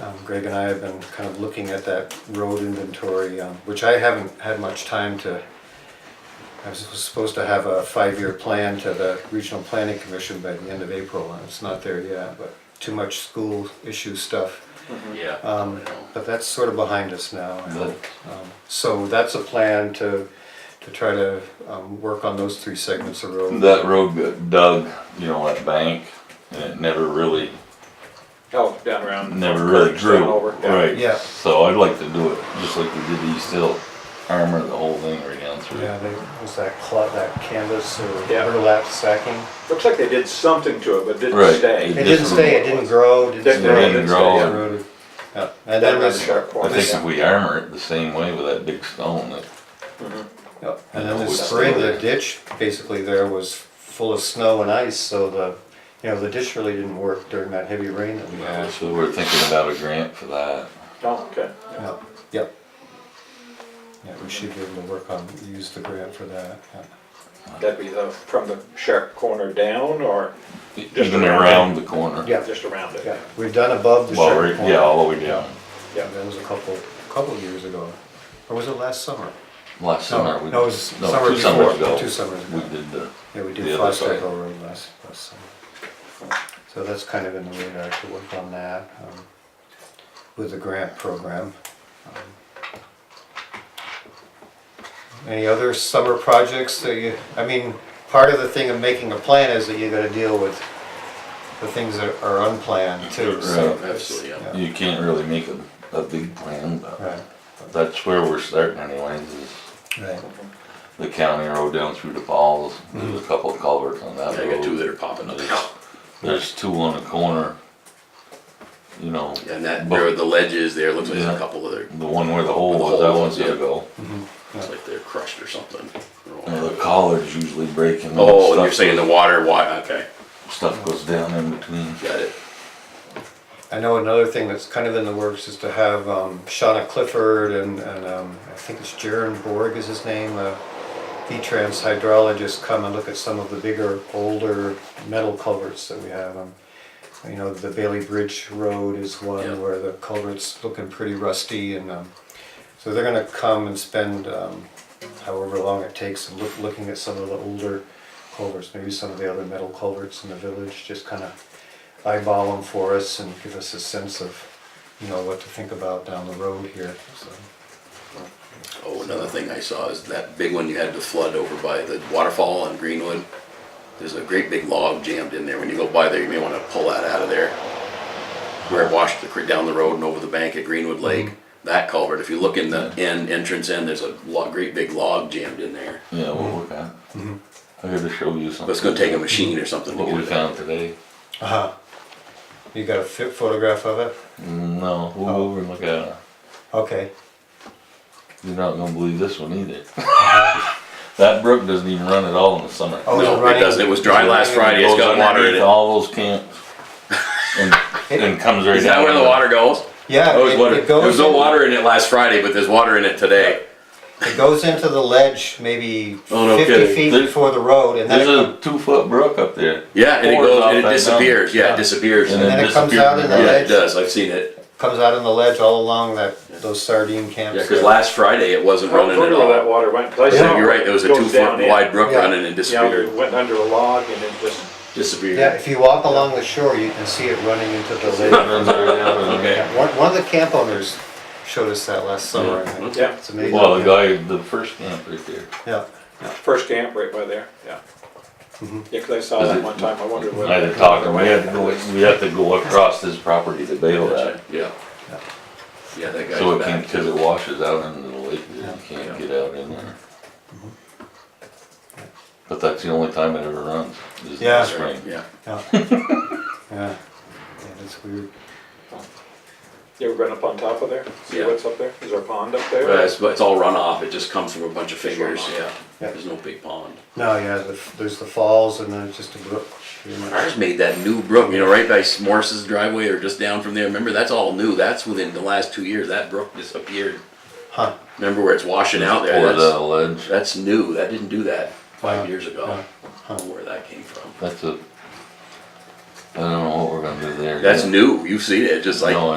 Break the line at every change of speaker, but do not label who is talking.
um, Greg and I have been kind of looking at that road inventory, um, which I haven't had much time to. I was supposed to have a five-year plan to the Regional Planning Commission by the end of April, and it's not there yet, but too much school issue stuff.
Yeah.
Um, But that's sort of behind us now.
Good.
Um, So that's a plan to, to try to um, work on those three segments of road.
That road got dug, you know, that bank, and it never really,
Oh, down around.
never really
Curves
grew.
down over, yeah.
Right.
Yeah.
So I'd like to do it just like we did East Hill, armor the whole thing right down through.
Yeah, they, was that cloth, that canvas or
Yeah.
burlap sacking?
Looks like they did something to it, but
Right.
didn't stay.
It didn't stay, it didn't grow, it didn't
Didn't
grow.
grow,
it didn't
didn't grow.
stay, it eroded. Yeah, And
That
then
was
this,
sharp
I
corners.
think if we armor it the same way with that big stone, that
yeah, and then
Always
this spring, the
there.
ditch basically there was full of snow and ice, so the, you know, the ditch really didn't work during that heavy rain that we had.
So we're thinking about a grant for that.
Oh, okay.
Yeah, Yep. Yeah, we should be able to work on, use the grant for that. yeah.
That'd be the, from the sharp corner down or Just
Even
around
around the corner.
Yeah.
just around it?
Yeah, we've done above the
Well,
sharp
we're-
corner.
yeah, all the way down.
Yeah.
That was a couple, couple years ago, or was it last summer?
Last
No,
summer, we.
no, it was
no,
summer
two summers
before,
ago,
two summers ago.
We did the.
Yeah, we
the
did
other
Foster
side.
Hill Road last, last summer. So that's kind of in the radar to work on that, um, with the grant program. Um, Any other summer projects that you, I mean, part of the thing of making a plan is that you gotta deal with the things that are unplanned too, so.
Right.
Absolutely, yeah.
You can't really make a, a big plan, but
Right,
that's where we're starting anyways, is
right,
the county road down through the falls. There's a couple of culverts on that
Mm-hmm. I got two
road.
that are popping up.
There's two on the corner. You know,
And that, there are the ledges there, looks like there's
Yeah.
a couple other,
the one where the hole
The
was, that
hole,
one's
yeah.
gonna go.
it's like they're crushed or something.
And the collards usually breaking.
Oh, and you're saying the water, why, okay,
Stuff goes down in between.
got it.
I know another thing that's kind of in the works is to have um, Shauna Clifford and, and um, I think it's Jaron Borg is his name, a V-Trans hydrologist, come and look at some of the bigger, older metal culverts that we have. Um, You know, the Bailey Bridge Road is
Yeah.
one where the culvert's looking pretty rusty and, um, so they're gonna come and spend um, however long it takes and look, looking at some of the older culverts, maybe some of the other metal culverts in the village, just kind of eyeball them for us and give us a sense of, you know, what to think about down the road here, so.
Oh, another thing I saw is that big one you had to flood over by the waterfall on Greenwood. There's a great big log jammed in there. When you go by there, you may wanna pull that out of there. Where it washed the creek down the road and over the bank at Greenwood
Mm-hmm.
Lake, that culvert, if you look in the end, entrance end, there's a lo great big log jammed in there.
Yeah, we'll look at. it. I gotta show you something.
But it's gonna Mm-hmm. take a machine or something to
What
get
we
it out.
found today.
Uh-huh. You got a fit photograph of it?
No, we'll go over and look at it.
Okay.
You're not gonna believe this one either. That brook doesn't even run at all in the summer.
Oh,
No, it doesn't. It was dry last Friday. It's
Goes
got water in
underneath
it.
All those camps. And, and comes right down.
Is that where the water goes?
Yeah,
I always
it-
wondered.
it goes.
There was no
in-
water in it last Friday, but there's water in it today.
It goes into the ledge maybe
Oh, no
fifty
kidding.
feet
There's-
before the road and then it
There's
comes,
a two foot brook up there.
Yeah, and it
Pours
goes
off
and it
that
disappears.
mountain.
Yeah, it disappears.
And
Yeah,
then-
then it comes
disappeared
out in the
in the
it
ledge,
does. I've seen it.
comes out in the ledge all along that, those sardine camps.
Yeah, because last Friday it wasn't
I don't
running at
remember where that
all.
water went, 'cause I
Yeah,
saw.
you're right. There was a
it goes
two
down
foot
in.
wide brook
Yeah.
running and
You know, it
disappeared.
went under a log and it just,
Yeah,
Disappeared.
if you walk along the shore, you can see it running into the lake.
Runs right down and-
Okay.
Yeah, One, one of the camp owners showed us that last summer, I think.
Yeah.
It's amazing.
Well, the guy, the first camp right there.
Yeah,
first camp right by there, yeah. Yeah, 'cause I saw
Does
that
it-
one time. I wondered where.
I had to talk to him. We had to go, we had to go across his property to bail that.
Yeah. Yeah, that
So
guy's
it can,
back.
cause it washes out into the lake, there, you can't get out in there. But that's the only time it ever runs, is in
Yeah.
the spring.
Yeah.
yeah. Yeah, yeah that's weird.
You ever been up on top of there? See
Yeah.
what's up there? Is there a pond up
But
there?
it's, but it's all runoff. It just comes from a bunch of fingers.
runoff.
Yeah.
Yeah.
There's no big pond.
No, yeah, the- there's the falls and then it's just a brook. pretty much.
Ours made that new brook, you know, right by Morris's driveway or just down from there. Remember, that's all new. That's within the last two years. That brook disappeared.
Huh,
Remember where it's washing out there?
Or the
That's,
ledge,
that's new. That didn't do that five
Yeah.
years ago.
Yeah.
I don't know where that came from.
that's a, I don't know what we're gonna do there.
That's new. You've seen it, just like
No, I